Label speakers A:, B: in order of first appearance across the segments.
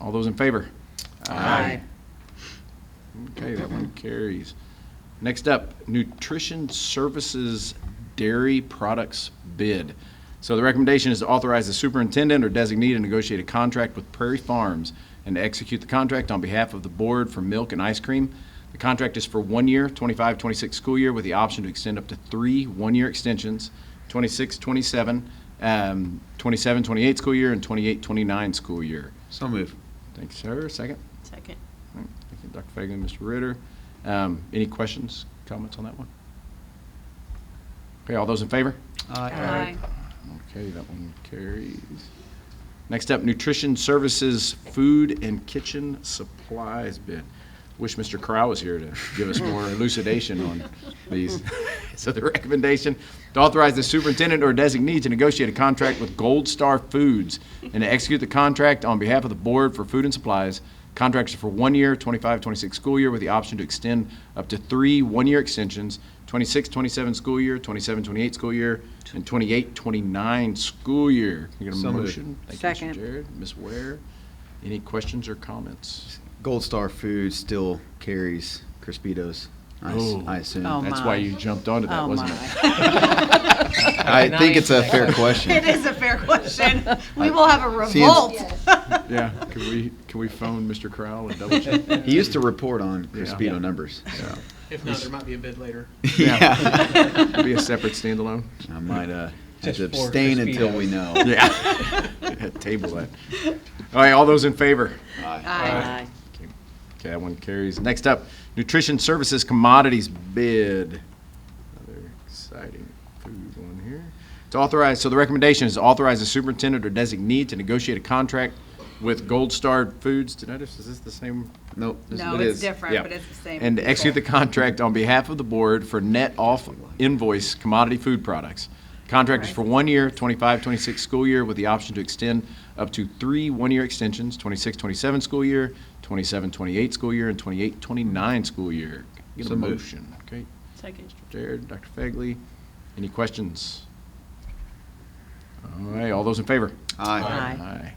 A: All those in favor?
B: Aye.
A: Okay, that one carries. Next up, Nutrition Services Dairy Products Bid. So the recommendation is to authorize the superintendent or designee to negotiate a contract with Prairie Farms and to execute the contract on behalf of the board for milk and ice cream. The contract is for one year, 25-26 school year, with the option to extend up to three one-year extensions, 26-27, um, 27-28 school year, and 28-29 school year.
C: So move.
A: Thank you, sir. Second?
B: Second.
A: All right, Thank you, Dr. Fagan, Mr. Ritter. Um, Any questions, comments on that one? Okay, all those in favor?
B: Aye.
A: Okay, that one carries. Next up, Nutrition Services Food and Kitchen Supplies bid. Wish Mr. Corral was here to give us more elucidation on these. So the recommendation, to authorize the superintendent or designee to negotiate a contract with Gold Star Foods and to execute the contract on behalf of the Board for Food and Supplies. Contracts are for one year, 25-26 school year, with the option to extend up to three one-year extensions, 26-27 school year, 27-28 school year, and 28-29 school year. Can I get a
C: So moved.
A: motion? Thank you, Mr.
B: Second.
A: Jared. Ms. Ware, any questions or comments?
C: Gold Star Foods still carries Crispitos. I, s-
A: Oh.
C: I assume.
B: Oh,
A: That's
B: my.
A: why you jumped onto that,
B: Oh,
A: wasn't it?
B: my.
C: I think it's a fair
B: It
C: question.
B: is a fair question. We will have a
C: See, it's-
B: revolt.
A: Yeah, can we, can we phone Mr. Crowell and double check?
C: He used to report on
A: Yeah.
C: Crispito numbers. So.
D: If not, there might be a bid later.
A: Yeah. Be a separate standalone?
C: I might uh, have
D: Just
C: to
D: for
C: abstain until we know.
A: Yeah. Table that. All right, all those in favor?
B: Aye.
A: Okay, that one carries. Next up, Nutrition Services Commodities Bid. Another exciting food one here. To authorize, so the recommendation is to authorize the superintendent or designee to negotiate a contract with Gold Star Foods. Did I just, is this the same?
C: Nope. this is
B: No,
C: what it
B: it's
C: is.
B: different,
A: Yeah.
B: but it's the same.
A: And to execute the
B: people.
A: contract on behalf of the board for net off invoice commodity food products. Contract is for one year, 25-26 school year, with the option to extend up to three one-year extensions, 26-27 school year, 27-28 school year, and 28-29 school year. Get a
C: So moved.
A: motion, okay?
B: Second.
A: Jared, Dr. Fagley, any questions? All right, all those in favor?
C: Aye.
B: Aye.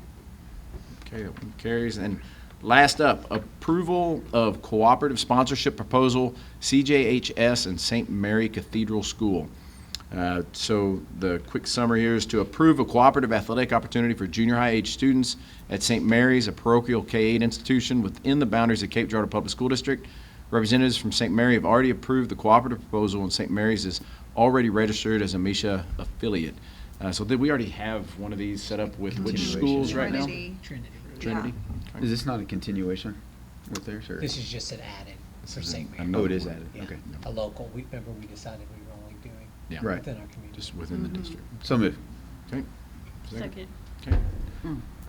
A: Okay, that one carries. And last up, approval of cooperative sponsorship proposal, CJHS and St. Mary Cathedral School. Uh, So the quick summary here is to approve a cooperative athletic opportunity for junior high age students at St. Mary's, a parochial K-8 institution within the boundaries of Cape Girardeau Public School District. Representatives from St. Mary have already approved the cooperative proposal, and St. Mary's is already registered as a MISA affiliate. Uh, So did we already have one of these set up with which schools right now?
B: Trinity.
A: Trinity?
C: Is this not a continuation with theirs? Or?
D: This is just an added for St. Mary.
C: Oh, it is added.
D: Yeah,
C: Okay.
D: A local, we, remember we decided we were only doing
A: Yeah.
C: Right.
D: within our community.
A: Just within the district.
C: So move.
A: Okay. Okay.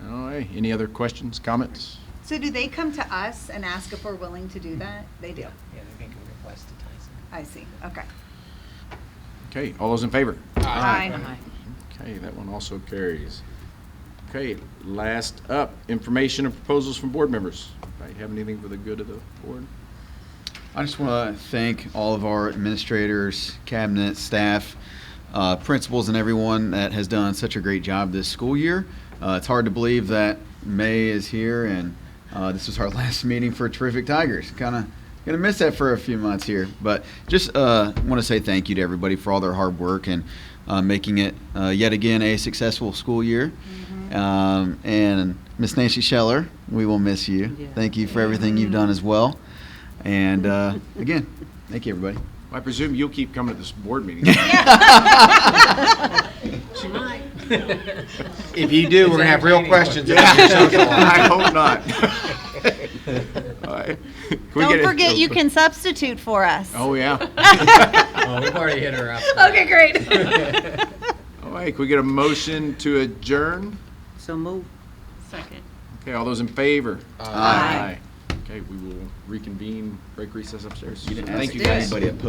A: All right, any other questions, comments?
E: So do they come to us and ask if we're willing to do that? They do.
D: Yeah, yeah, they make a request to Tyson.
E: I see. Okay.
A: Okay, all those in favor?
E: Aye.
A: Okay, that one also carries. Okay, last up, information and proposals from board members. Anybody have anything for the good of the board?
C: I just want to thank all of our administrators, cabinet, staff, uh, principals, and everyone that has done such a great job this school year. Uh, it's hard to believe that May is here and uh, this was our last meeting for Terrific Tigers. Kind of gonna miss that for a few months here, but just uh, want to say thank you to everybody for all their hard work and uh, making it uh, yet again a successful school year.
B: Mm-hmm.
C: Um, and Miss Nancy Scheller, we will miss you.
B: Yeah.
C: Thank you for everything you've done as well. And uh, again, thank you, everybody.
A: I presume you'll keep coming to this board meeting.
F: If you do, we're gonna have real questions.
A: I hope not. All right. Can we get
E: Don't
A: a-
E: forget, you can substitute for us.
A: Oh, yeah.
D: Oh, we've already hit her up.
E: Okay, great.
A: All right, can we get a motion to adjourn?
B: So move. Second.
A: Okay, all those in favor?
C: Aye.
A: Okay, we will reconvene, break recess upstairs.
C: You didn't ask
A: Thank you,
C: anybody opposed.